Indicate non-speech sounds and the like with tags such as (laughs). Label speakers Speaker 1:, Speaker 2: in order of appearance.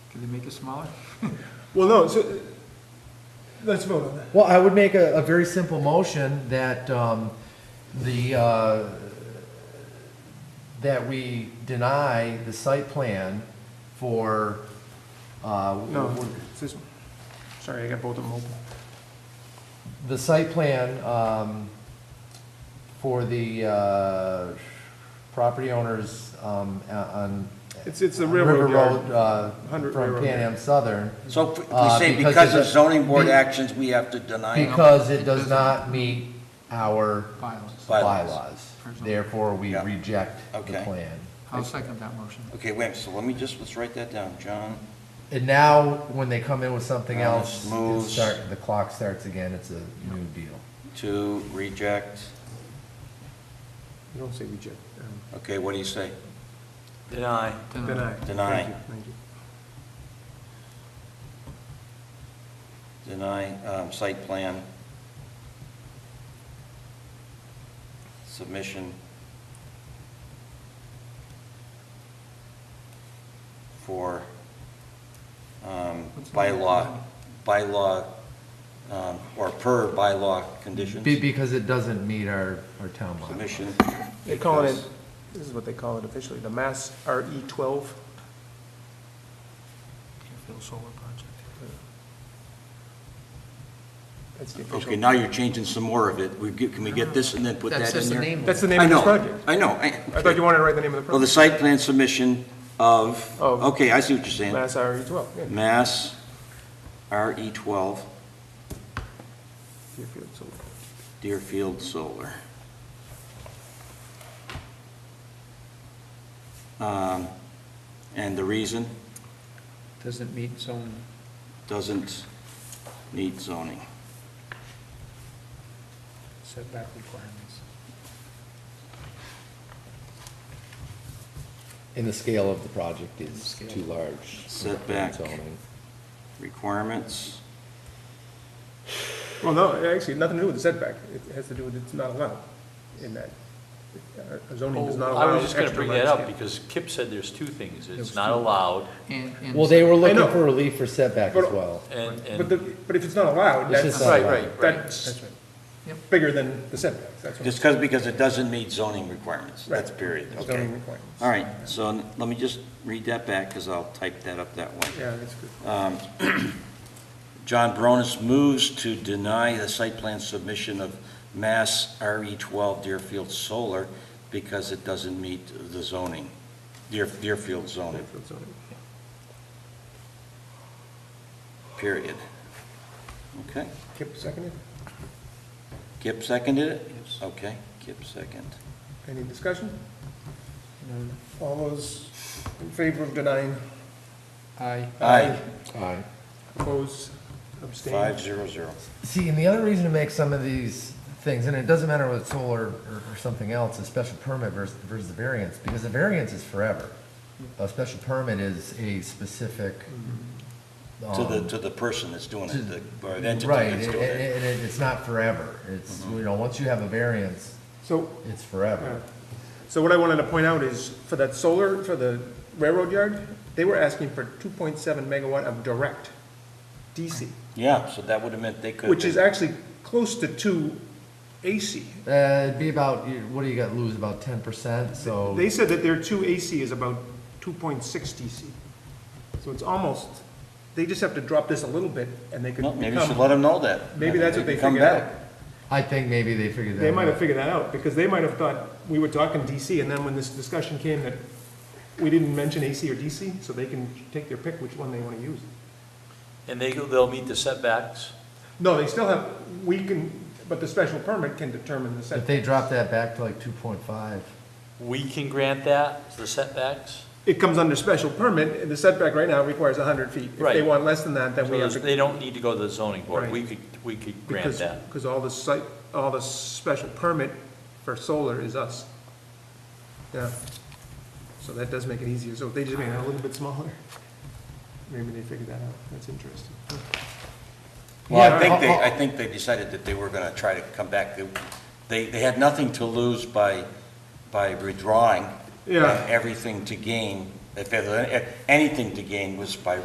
Speaker 1: Did they make it smaller?
Speaker 2: Well, no, so, let's vote on that.
Speaker 3: Well, I would make a, a very simple motion that, um, the, uh, that we deny the site plan for, uh,
Speaker 2: No, it's this one. Sorry, I got both of them open.
Speaker 3: the site plan, um, for the, uh, property owners, um, a- on.
Speaker 2: It's, it's the
Speaker 3: on
Speaker 2: railroad
Speaker 3: River
Speaker 2: yard.
Speaker 3: Road, uh,
Speaker 2: Hundred
Speaker 3: from
Speaker 2: Railroad
Speaker 3: Pan Am Southern,
Speaker 4: So if we
Speaker 3: Uh,
Speaker 4: say
Speaker 3: because
Speaker 4: because of
Speaker 3: it's a-
Speaker 4: zoning board
Speaker 3: be-
Speaker 4: actions, we have to deny it.
Speaker 3: because it does not meet our
Speaker 1: Bylaws.
Speaker 4: Bylaws.
Speaker 3: bylaws.
Speaker 1: Personal.
Speaker 3: Therefore, we
Speaker 4: Yeah.
Speaker 3: reject the
Speaker 4: Okay.
Speaker 3: plan.
Speaker 1: I'll second that motion.
Speaker 4: Okay, wait, so let me just, let's write that down, John.
Speaker 3: And now, when they come in with something
Speaker 4: Now
Speaker 3: else,
Speaker 4: this
Speaker 3: it
Speaker 4: moves.
Speaker 3: start, the clock starts again, it's a new deal.
Speaker 4: To reject,
Speaker 2: You don't say reject. um,
Speaker 4: okay, what do you say? Deny.
Speaker 1: Deny.
Speaker 2: Deny.
Speaker 4: Deny.
Speaker 2: Thank you, thank you.
Speaker 4: Deny, um, site plan. Submission. For, um,
Speaker 1: What's the-
Speaker 4: bylaw, bylaw, um, or per bylaw conditions.
Speaker 3: Be, because it doesn't meet our, our town bylaw.
Speaker 4: Submission.
Speaker 2: They're calling it,
Speaker 4: because-
Speaker 2: this is what they call it officially, the Mass RE twelve.
Speaker 1: Deerfield Solar Project.
Speaker 2: That's the
Speaker 4: Okay,
Speaker 2: official.
Speaker 4: now you're changing some more of it. We get, can we get this and then put that in there?
Speaker 2: That's the name
Speaker 4: I
Speaker 2: of this
Speaker 4: know,
Speaker 2: project.
Speaker 4: I know. I-
Speaker 2: I thought you wanted to write the name of the
Speaker 4: Well, the
Speaker 2: project.
Speaker 4: site plan submission of,
Speaker 2: Of-
Speaker 4: okay, I see what you're saying.
Speaker 2: Mass RE twelve, yeah.
Speaker 4: Mass RE twelve
Speaker 2: Deerfield Solar.
Speaker 4: Deerfield Solar. Um, And the reason,
Speaker 1: Doesn't meet zone.
Speaker 4: doesn't need zoning.
Speaker 1: Setback requirements.
Speaker 3: And the scale of the project is
Speaker 1: Scale.
Speaker 3: too large.
Speaker 4: Setback.
Speaker 3: Zoning.
Speaker 4: Requirements,
Speaker 2: Well, no, actually, nothing to do with the setback. It has to do with it's not allowed in that. uh, Zoning does not
Speaker 5: Well,
Speaker 2: allow.
Speaker 5: Oh, I was just gonna
Speaker 2: extra
Speaker 5: bring that up,
Speaker 2: landscape.
Speaker 5: because Kip said there's two things,
Speaker 1: There's
Speaker 5: it's
Speaker 1: two.
Speaker 5: not allowed,
Speaker 1: And, and.
Speaker 3: Well, they were looking
Speaker 2: know.
Speaker 3: for relief for setback as
Speaker 2: But-
Speaker 3: well.
Speaker 5: and,
Speaker 2: But the,
Speaker 5: and,
Speaker 2: but if it's not allowed,
Speaker 3: It's just
Speaker 2: that's,
Speaker 4: uh,
Speaker 3: not
Speaker 5: Right,
Speaker 3: allowed.
Speaker 5: right.
Speaker 2: that's
Speaker 1: That's right.
Speaker 2: bigger than the setbacks, that's
Speaker 4: just
Speaker 2: what.
Speaker 4: because, because it doesn't meet zoning requirements. That's period, okay.
Speaker 2: Zoning requirements.
Speaker 4: All right, so n- let me just read that back, because I'll type that up that way.
Speaker 2: Yeah, that's good.
Speaker 4: Um, John Bronis moves to deny the site plan submission of Mass RE12 Deerfield Solar because it doesn't meet the zoning, Deer- Deerfield zoning,
Speaker 2: Deerfield zoning.
Speaker 4: period. Okay,
Speaker 2: Kip seconded.
Speaker 4: Kip seconded it?
Speaker 1: Yes.
Speaker 4: Okay, Kip second.
Speaker 2: Any discussion?
Speaker 1: No,
Speaker 2: All those in favor of denying?
Speaker 1: Aye.
Speaker 4: Aye,
Speaker 3: Aye.
Speaker 2: Opposed, abstained?
Speaker 4: five zero zero.
Speaker 3: See, and the other reason to make some of these things, and it doesn't matter whether it's solar or, or something else, a special permit versus, versus the variance, because the variance is forever. A special permit is a specific.
Speaker 4: To the,
Speaker 3: um,
Speaker 4: to the person that's doing
Speaker 3: To-
Speaker 4: it, the- or the entity
Speaker 3: Right,
Speaker 2: eh,
Speaker 4: that's Mm-hmm.
Speaker 3: and,
Speaker 4: doing it.
Speaker 3: and it- it's not forever. It's, you know, once you have a variance,
Speaker 2: So,
Speaker 3: it's forever.
Speaker 2: so what I wanted to point out is, for that solar, for the railroad yard, they were asking for two point seven megawatt of direct DC,
Speaker 4: Yeah, so that would have meant they could have
Speaker 2: which is
Speaker 4: been-
Speaker 2: actually close to two AC.
Speaker 3: Uh, it'd be about, you- what do you got, lose about ten percent, so.
Speaker 2: They said that their two AC is about two point six DC. So it's almost, they just have to drop this a little bit, and they could
Speaker 4: Well,
Speaker 2: become.
Speaker 4: Maybe you should let them know that.
Speaker 2: Maybe that's what they
Speaker 4: can come
Speaker 2: figured
Speaker 4: back.
Speaker 2: out.
Speaker 3: I think maybe they figured that out.
Speaker 2: They might have figured that out, because they might have thought we were talking DC, and then when this discussion came that we didn't mention AC or DC, so they can take their pick which one they want to use.
Speaker 5: and they, go- they'll meet the setbacks.
Speaker 2: No, they still have, we can, but the special permit can determine the
Speaker 3: If
Speaker 2: setback.
Speaker 3: they drop that back to like two point five,
Speaker 5: We can grant that, the setbacks,
Speaker 2: It comes under special permit, and the setback right now requires hundred feet. If they
Speaker 5: Right.
Speaker 2: want less than that, then
Speaker 5: so
Speaker 2: we have
Speaker 5: there's-
Speaker 2: to.
Speaker 5: they don't need to go to the zoning board, we
Speaker 2: Right.
Speaker 5: could, we could grant
Speaker 2: because-
Speaker 5: that.
Speaker 2: Because all the site, all the special permit for solar is us. Yeah. So that does make it easier, so if they just made it a little bit smaller, maybe they figured that out, that's interesting.
Speaker 4: Well,
Speaker 3: Yeah,
Speaker 4: I think
Speaker 2: (laughs)
Speaker 4: they,
Speaker 3: I'll- I'll-
Speaker 4: I think they decided that they were gonna try to come back. They- They, they had nothing to lose by, by withdrawing.
Speaker 2: Yeah.
Speaker 4: and Everything to gain, if, there- if anything to gain was by